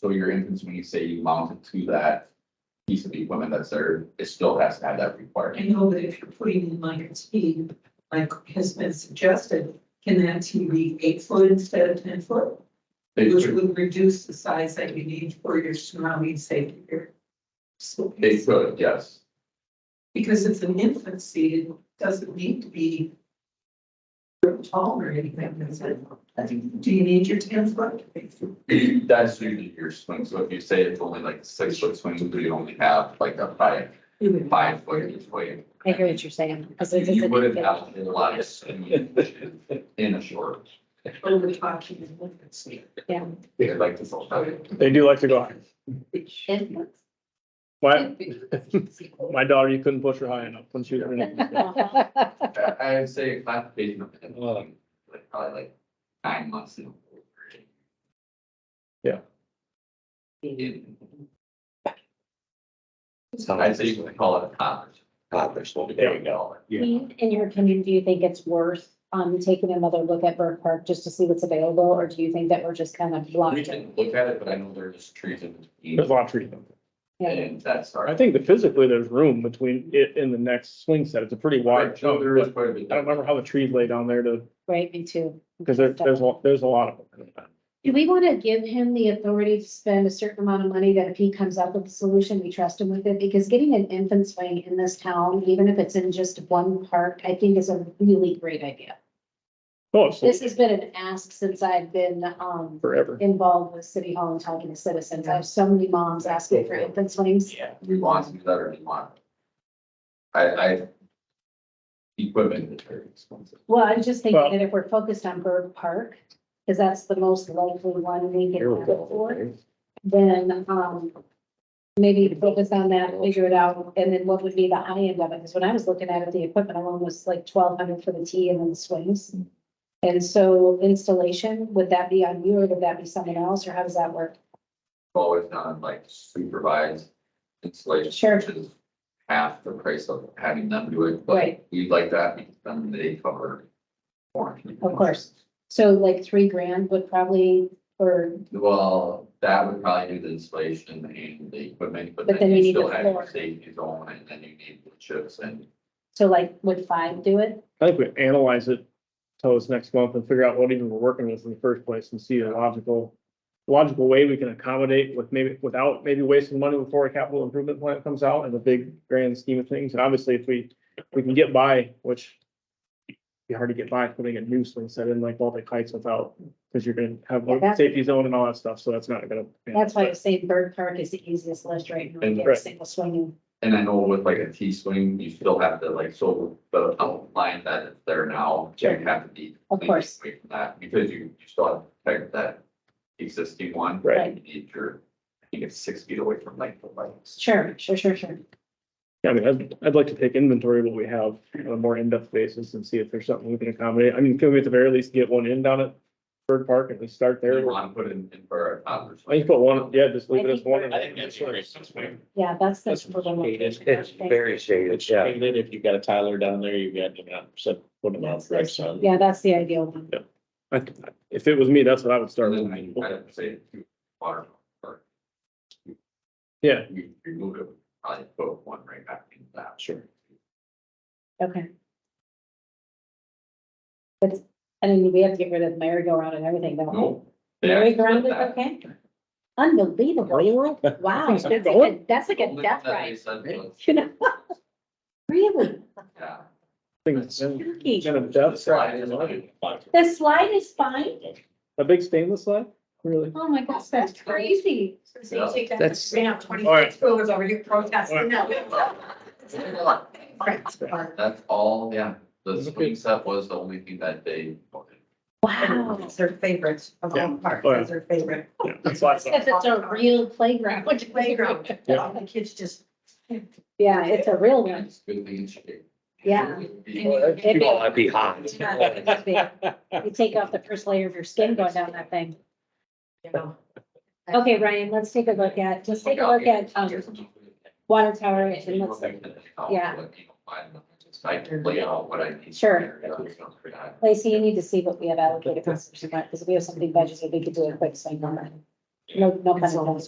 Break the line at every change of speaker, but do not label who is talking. So your entrance, when you say you mount it to that piece of equipment that's there, it still has to have that
I
requirement.
know that if you're putting in like a T, like has been suggested, can that T be eight foot instead of ten foot?
They
Which
could,
would reduce the size that you need for your surrounding safety here. So-
they could, yes.
Because it's an infant seat, it doesn't need to be tall or anything, does it? Do you need your ten foot?
That's usually your swing, so if you say it's only like six foot swing, do you only have like a five, five foot each way?
I hear what you're saying. 'cause it's-
You wouldn't
it's-
have a lot of swing in a short,
Or we're talking an infant seat?
They'd like this all time.
They do like to go. high.
it's-
My, my daughter, you couldn't push her high enough when she was. pregnant.
I- I would say classification of it,
Oh.
like probably like nine months. and over.
Yeah.
In- So I'd say you can call it a cottage. Cottage, there you go.
I mean, In your opinion, do you think it's worth um taking another look at Burke Park just to see what's available, or do you think that we're just kind of
We
blocked?
can look at it, but I know there's trees in
There's
between
a lot of trees. up there.
Yeah.
and that's our.
I think that physically there's room between it and the next swing set. It's a pretty wide.
No, Oh, there is quite a
I don't
bit.
remember how the trees lay down there to,
Right, me too.
because there, there's, a- there's a lot of them.
Do we want to give him the authority to spend a certain amount of money that if he comes up with a solution, we trust him with it? Because getting an infant swing in this town, even if it's in just one park, I think is a really great idea.
Oh, so
This has been an ask since I've been um
forever.
involved with City Hall and talking to citizens. I have so many moms asking for infant swings.
Yeah, we want to do that or we want. I, I. Equipment is very expensive.
Well, I was just thinking
Well-
that if we're focused on Bird Park, because that's the most likely one we can have it for, then, um, maybe focus on that, figure it out, and then what would be the high end of it? Because when I was looking at it, the equipment alone was like twelve hundred for the tee and then the swings. And so installation, would that be on you or would that be someone else, or how does that work?
always done like supervised installation.
Sure.
Which is half the price of having them do it, but
Right.
we like that because then they cover. warranty.
Of course. So like three grand would probably, or
Well, that would probably do the installation and the equipment, but
But
then
then you
you
need
still
the
have your
floor.
safety zone and then you need the chips and.
So like, would five do it?
I think we analyze it till this next month and figure out what even we're working with in the first place and see a logical, logical way we can accommodate with maybe, without maybe wasting money before a capital improvement plan comes out in the big grand scheme of things. And obviously if we, we can get by, which it'd be hard to get by putting a new swing set in like Baltic Heights without, because you're gonna have
Yeah, that's-
safety zone and all that stuff. So that's not gonna.
That's why I was saying Bird Park is the easiest list right now,
And-
get a
Right.
single swinging.
And I know with like a T swing, you still have to like, so the outline that is there now, you
Sure.
have to be.
Of course.
Away from that, because you, you still have to protect that existing one.
Right.
You need your, I think it's six feet away from like the lights.
Sure, sure, sure, sure.
Yeah, I mean, I'd, I'd like to take inventory of what we have on a more in-depth basis and see if there's something we can accommodate. I mean, can we at the very least get one in down at Bird Park and we start
There,
there?
you want to put in, in for a toddler.
I can put one, yeah, just leave it as one.
I think that's great.
Yeah, that's the.
That's shaded.
It's very shaded,
It's
yeah.
shaded. If you've got a Tyler down there, you've got, you know, so put them out direct sun.
Yeah, that's the ideal one.
I- If it was me, that's what I would start
And then
with.
I, I'd say two water. or-
Yeah.
You remove it, probably put one right back in that. Sure.
Okay. But, I mean, we have to get rid of merry-go-round and everything, don't we?
No. they actually said
Merry-go-round is
that.
okay? Unbelievable, you like, wow, that's like a, that's like
The
a
only
death
thing that they
ride,
said was,
you know? Really?
Yeah.
Things-
Turkey.
Kind of depth.
Slide is like-
The slide is fine?
A big stainless slide? Really?
Oh my gosh, that's crazy.
So you take that,
That's-
ran out
All right.
twenty-six dollars over your protest, no.
That's all, yeah, the
Okay.
swing set was the only thing that they.
Wow.
It's their favorite of all the parks,
Oh, yeah.
it's their favorite.
Yeah, that's why I said-
Because it's a real playground.
Playground,
Yeah.
the kids just.
Yeah, it's a real one.
It's good thing in shape.
Yeah.
You all would be hot.
You take off the first layer of your skin going down that thing.
you know.
Okay, Ryan, let's take a look at, let's take a look at, um, water tower and let's, yeah.
I can lay out what I need.
Sure.
Yeah.
Lacey, you need to see what we have allocated for, because if we have something budgeted, we could do a quick swing on that. No, no. pun intended.